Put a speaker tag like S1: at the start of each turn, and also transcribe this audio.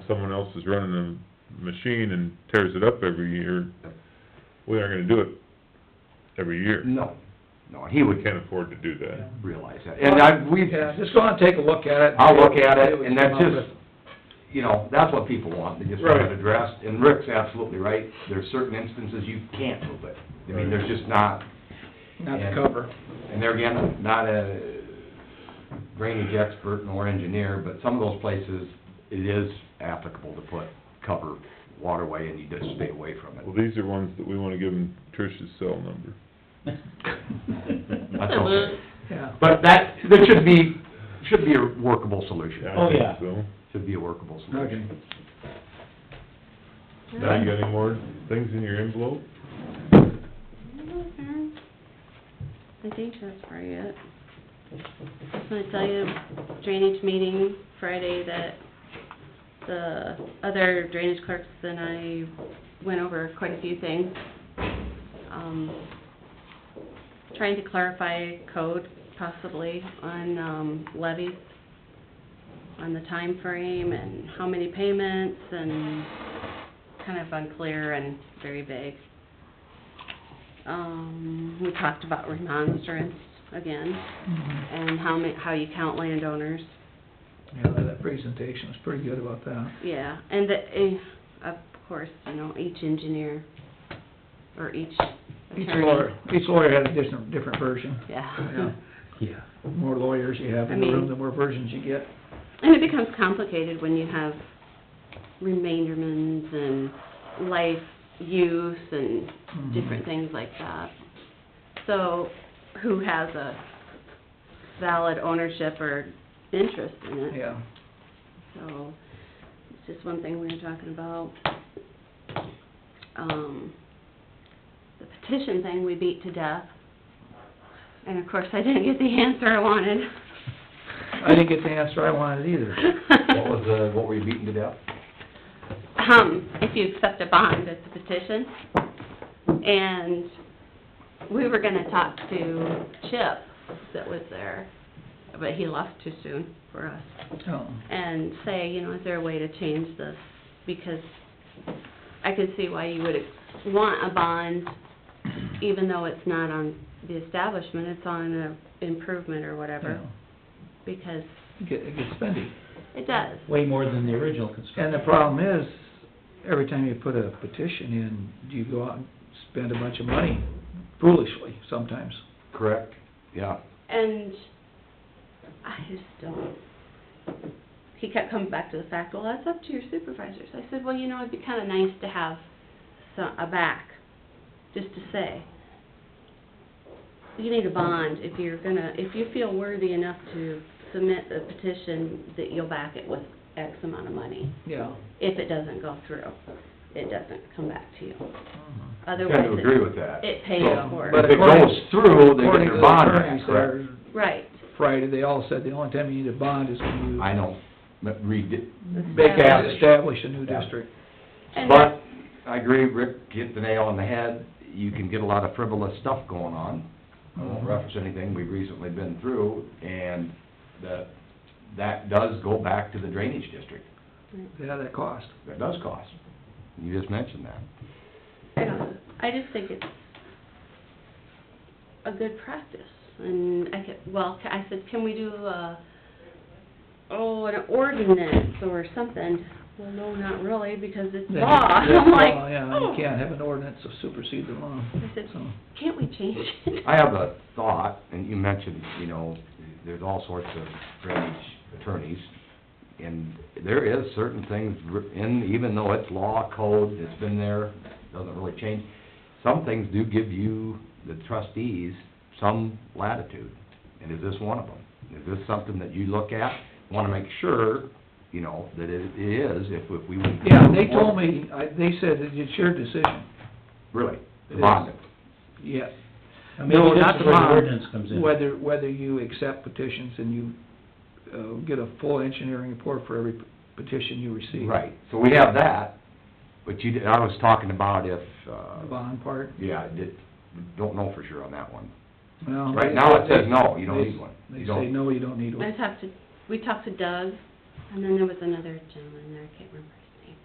S1: someone else is running a machine and tears it up every year, we aren't gonna do it every year.
S2: No, no, and he
S1: We
S2: would
S1: can't afford to do that.
S2: realize that. And I, we,
S3: Yeah, just go and take a look at it.
S2: I'll look at it, and that's
S3: Come up
S2: just- you know, that's what people want, they just want it
S3: Right.
S2: addressed. And Rick's absolutely right, there's certain instances you can't move it. I mean, there's just not,
S3: with- Not to cover.
S2: and there again, not a drainage expert nor engineer, but some of those places, it is applicable to put cover waterway and you just stay away from it.
S1: Well, these are ones that we wanna give them Trish's cell number.
S2: That's okay.
S3: Yeah.
S2: But that, there should be, should be a workable solution,
S1: I
S4: Oh,
S1: think
S4: yeah.
S1: So,
S2: should be a workable
S3: Okay.
S2: solution.
S1: now you got any more things in your envelope?
S5: I think that's probably it. I'm gonna tell you, drainage meeting Friday that the other drainage clerks and I went over quite a few things. Um, trying to clarify code possibly on, um, levies, on the time frame and how many payments and kind of unclear and very vague. Um, we talked about remonstrance again, and how ma- how you count landowners,
S3: Yeah, that presentation was pretty good about that.
S5: yeah, and the, eh, of course, you know, each engineer, or each
S3: Each
S5: attorney.
S3: lawyer, each lawyer had a different, different version.
S5: Yeah.
S3: Yeah.
S2: Yeah.
S3: More lawyers you have in the
S5: I mean-
S3: room, the more versions you get.
S5: And it becomes complicated when you have remainderments and life use and
S3: Mhm.
S5: different things like that. So, who has a valid ownership or interest in it?
S3: Yeah.
S5: So, it's just one thing we were talking about. Um, the petition thing we beat to death. And of course, I didn't get the answer I wanted.
S3: I didn't get the answer I wanted either.
S2: What was the, what were you beaten to death?
S5: Um, if you accept a bond, it's a petition. And we were gonna talk to Chip that was there, but he left too soon for us
S3: Oh,
S5: and say, you know, is there a way to change this? Because I could see why you would want a bond, even though it's not on the establishment, it's on an improvement or
S3: yeah.
S5: whatever, because
S3: It get- it gets spendy.
S5: it does.
S4: Way more than the original
S3: And
S4: construction.
S3: the problem is, every time you put a petition in, you go out and spend a bunch of money foolishly sometimes.
S2: Correct? Yeah.
S5: And I just don't. He kept coming back to the fact, well, that's up to your supervisors. I said, well, you know, it'd be kinda nice to have some, a back, just to say. You need a bond if you're gonna, if you feel worthy enough to submit a petition that you'll back it with X amount of money.
S3: Yeah.
S5: If it doesn't go through, it doesn't come back to you.
S2: I
S5: Otherwise,
S2: tend to agree
S5: it,
S2: with that.
S5: it pays
S3: Yeah,
S5: for
S3: but
S2: If
S5: it.
S2: it goes through, they get
S3: According to
S2: their
S3: the
S2: bond
S3: attorneys
S2: back, correct?
S3: there
S5: Right.
S3: Friday, they all said the only time you need a bond is when you
S2: I know, but read it.
S3: make out,
S5: Established.
S3: establish a new
S2: Yeah.
S3: district.
S5: And
S2: But, I agree, Rick hit the nail on the head, you can get a lot of frivolous stuff going on. I
S5: Mm-hmm.
S2: won't reference anything we've recently been through, and that, that does go back to the drainage district,
S3: Yeah, that cost.
S2: that does cost. You just mentioned that.
S5: I don't know. I just think it's a good practice, and I could, well, ca- I said, can we do a, oh, an ordinance or something? Well, no, not really, because it's
S3: That-
S5: law,
S3: that
S5: I'm like,
S3: law, Yeah,
S5: oh.
S3: you can't have an ordinance that supersedes the law.
S5: I said,
S3: So,
S5: can't we change it?
S2: I have a thought, and you mentioned, you know, there's all sorts of drainage attorneys, and there is certain things in, even though it's law, code, it's been there, doesn't really change, some things do give you, the trustees, some latitude, and is this one of them? Is this something that you look at, wanna make sure, you know, that it is, if, if we would...
S3: Yeah, they told me, I, they said that it's your decision.
S2: Really, the bond.
S3: Yeah.
S4: And maybe
S3: No,
S4: this
S3: not
S4: is
S3: the
S4: where the
S3: bond.
S4: ordinance comes in.
S3: Whether, whether you accept petitions and you, uh, get a full engineering report for every petition you receive.
S2: Right, so we have that, but you, I was talking about if,
S3: The
S2: uh,
S3: bond part.
S2: yeah, I did, don't know for sure on that one.
S3: Well,
S2: Right now, it
S3: they-
S2: says no, you don't
S3: they-
S2: need one.
S3: They
S2: You
S3: say,
S2: don't,
S3: no, you don't need
S5: I
S3: one.
S5: talked to, we talked to Doug, and then there was another gentleman there, I can't remember